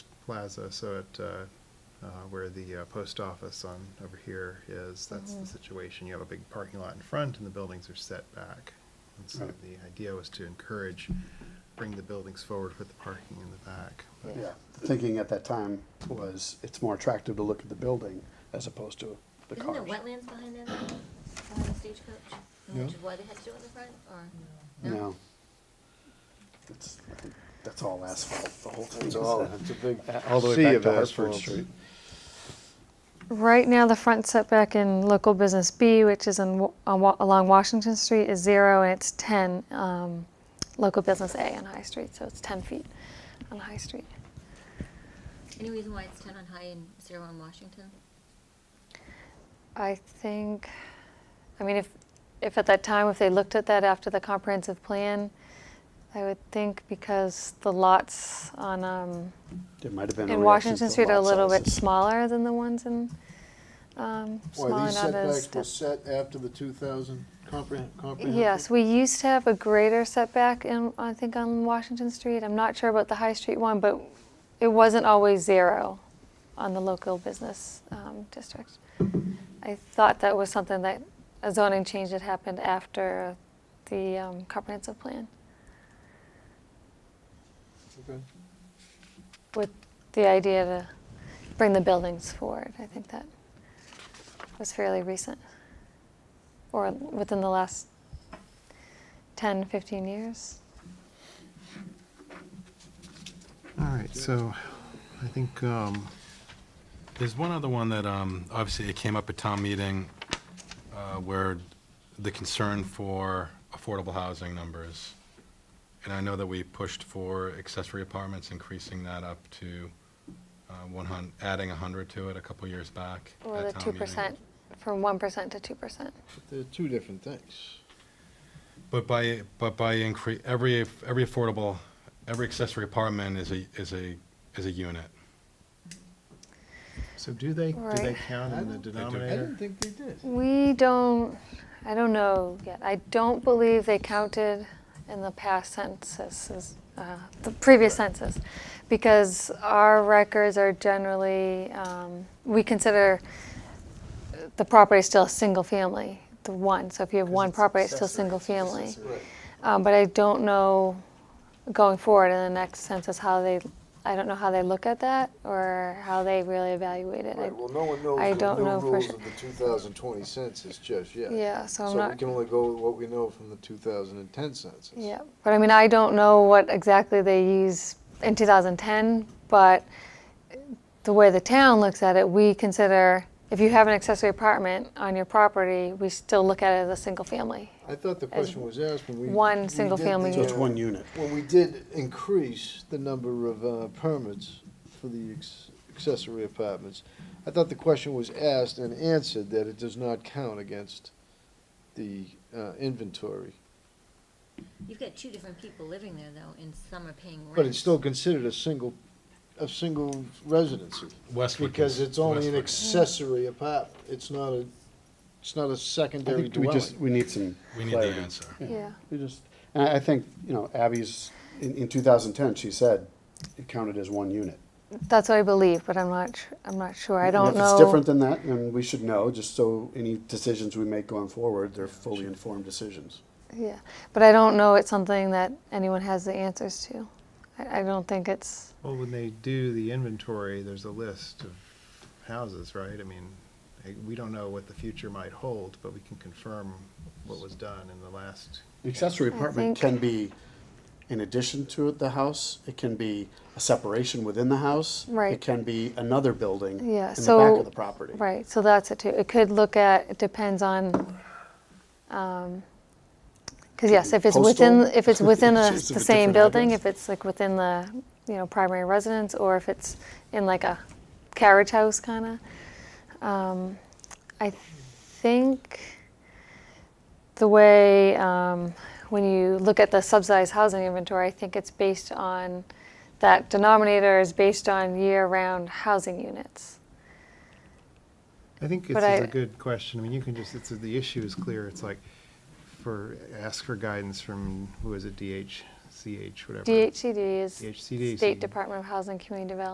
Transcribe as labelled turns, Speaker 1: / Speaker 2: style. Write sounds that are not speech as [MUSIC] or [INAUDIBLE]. Speaker 1: plaza, so at, uh, uh, where the uh, post office on, over here is, that's the
Speaker 2: Mhm.
Speaker 1: situation. You have a big parking lot in front and the buildings are set back. And so
Speaker 3: Right.
Speaker 1: the idea was to encourage, bring the buildings forward with the parking in the back. But
Speaker 3: Yeah, the thinking at that time was it's more attractive to look at the building as opposed to the
Speaker 2: Isn't there
Speaker 3: cars.
Speaker 2: wetlands behind that, now, behind the stagecoach?
Speaker 3: No.
Speaker 2: Which is why they had to do it in the front, or?
Speaker 3: No. It's, I think that's all asphalt, the whole thing.
Speaker 4: It's
Speaker 3: is
Speaker 4: all,
Speaker 3: that.
Speaker 4: it's a big
Speaker 3: [LAUGHS] All the way
Speaker 4: sea
Speaker 3: back
Speaker 4: of
Speaker 3: to Hartford
Speaker 4: asphalt.
Speaker 3: Street.
Speaker 5: Right now, the front setback in local business B, which is on, Wa- on, Wa- along Washington Street, is zero, and it's 10, um, local business A on High Street, so it's 10 feet on High Street.
Speaker 2: Any reason why it's ten on High and zero on Washington?
Speaker 5: I think, I mean, if, if at that time, if they looked at that after the comprehensive plan, I would think because the lots on, um,
Speaker 3: There might have been a reaction to
Speaker 5: in Washington
Speaker 3: the
Speaker 5: Street are a
Speaker 3: lot
Speaker 5: little bit
Speaker 3: sizes.
Speaker 5: smaller than the ones in, um,
Speaker 4: Why,
Speaker 5: smaller
Speaker 4: these
Speaker 5: not as
Speaker 4: setbacks were
Speaker 5: that-
Speaker 4: set after the two thousand comprehend, comprehensive?
Speaker 5: Yes, we used to have a greater setback in, I think, on Washington Street. I'm not sure about the High Street one, but it wasn't always zero on the local business um, district. I thought that was something that, a zoning change that happened after the um, comprehensive plan,
Speaker 4: Okay.
Speaker 5: with the idea to bring the buildings forward. I think that was fairly recent, or within the last 10, 15 years.
Speaker 1: All right, so I think, um,
Speaker 6: There's one other one that, um, obviously, it came up at town meeting uh, where the concern for affordable housing numbers. And I know that we pushed for accessory apartments, increasing that up to uh, one hundred, adding 100 to it a couple years back.
Speaker 5: Or
Speaker 6: at
Speaker 5: the
Speaker 6: town
Speaker 5: two
Speaker 6: meeting.
Speaker 5: percent, from one percent to two percent.
Speaker 4: They're two different things.
Speaker 6: But by, but by incre, every, every affordable, every accessory apartment is a, is a, is a unit.
Speaker 1: so do they, do they
Speaker 5: Right.
Speaker 1: count in the
Speaker 4: I don't-
Speaker 6: I
Speaker 1: denominator?
Speaker 4: think they did.
Speaker 5: We don't, I don't know yet, I don't believe they counted in the past censuses, uh, the previous census, because our records are generally, um, we consider the property still a single family, the one, so if you have one property, it's still single family. Um, but I don't know going forward in the next census how they, I don't know how they look at that or how they really evaluate it. I-
Speaker 4: Right, well, no one knows
Speaker 5: I
Speaker 4: the
Speaker 5: don't
Speaker 4: new
Speaker 5: know for
Speaker 4: rules
Speaker 5: sure.
Speaker 4: of the two thousand twenty census just yet.
Speaker 5: Yeah, so I'm
Speaker 4: So we
Speaker 5: not,
Speaker 4: can only go with what we know from the two thousand and ten census.
Speaker 5: yeah, but I mean, I don't know what exactly they use in 2010, but the way the town looks at it, we consider, if you have an accessory apartment on your property, we still look at it as a single family.
Speaker 4: I thought the
Speaker 5: As
Speaker 4: question was asked when we.
Speaker 5: one
Speaker 4: we
Speaker 5: single
Speaker 4: did the,
Speaker 5: family
Speaker 3: So it's
Speaker 4: uh,
Speaker 3: one unit.
Speaker 4: When we did increase the number of uh, permits for the ex- accessory apartments, I thought the question was asked and answered that it does not count against the uh, inventory.
Speaker 2: You've got two different people living there, though, and some are paying rent.
Speaker 4: But it's still considered a single, a single residency.
Speaker 6: Westwood.
Speaker 4: Because
Speaker 6: cons-
Speaker 4: it's only an
Speaker 6: Westwood.
Speaker 4: accessory apartment. It's not a, it's not a
Speaker 3: I
Speaker 4: secondary
Speaker 3: think we just,
Speaker 4: dwelling.
Speaker 3: we need some
Speaker 6: We need the
Speaker 3: clarity.
Speaker 6: answer.
Speaker 5: Yeah.
Speaker 3: We just, and I I think, you know, Abby's, in, in two thousand ten, she said it counted as one unit.
Speaker 5: That's what I believe, but I'm not, su- I'm not sure, I
Speaker 3: And
Speaker 5: don't know.
Speaker 3: If it's different than that, then we should know, just so any decisions we make going forward, they're fully informed decisions.
Speaker 5: Yeah, but I don't know it's something that anyone has the answers to. I, I don't think it's,
Speaker 1: Well, when they do the inventory, there's a list of houses, right? I mean, eh, we don't know what the future might hold, but we can confirm what was done in the last.
Speaker 3: Accessory
Speaker 5: I
Speaker 3: apartment can
Speaker 5: think-
Speaker 3: be in addition to the house, it can be a separation within the house.
Speaker 5: Right.
Speaker 3: It can be another building in
Speaker 5: yeah,
Speaker 3: the back
Speaker 5: so,
Speaker 3: of the property.
Speaker 5: right, so that's it too. It could look at, it depends on, um, cause yes, if it's within,
Speaker 3: Postal? [LAUGHS]
Speaker 5: if it's within a-
Speaker 3: Is it
Speaker 5: the
Speaker 3: a
Speaker 5: same
Speaker 3: different
Speaker 5: building,
Speaker 3: address?
Speaker 5: if it's like within the, you know, primary residence, or if it's in like a carriage house kinda. Um, I think the way, um, when you look at the subsidized housing inventory, I think it's based on, that denominator is based on year-round housing units.
Speaker 1: I think
Speaker 5: But
Speaker 1: this is
Speaker 5: I-
Speaker 1: a good question. I mean, you can just, it's, the issue is clear. It's like for, ask for guidance from, who is it, DHCH, whatever.
Speaker 5: DHCD is
Speaker 1: DHCD, so you-
Speaker 5: State Department of Housing and Community Development.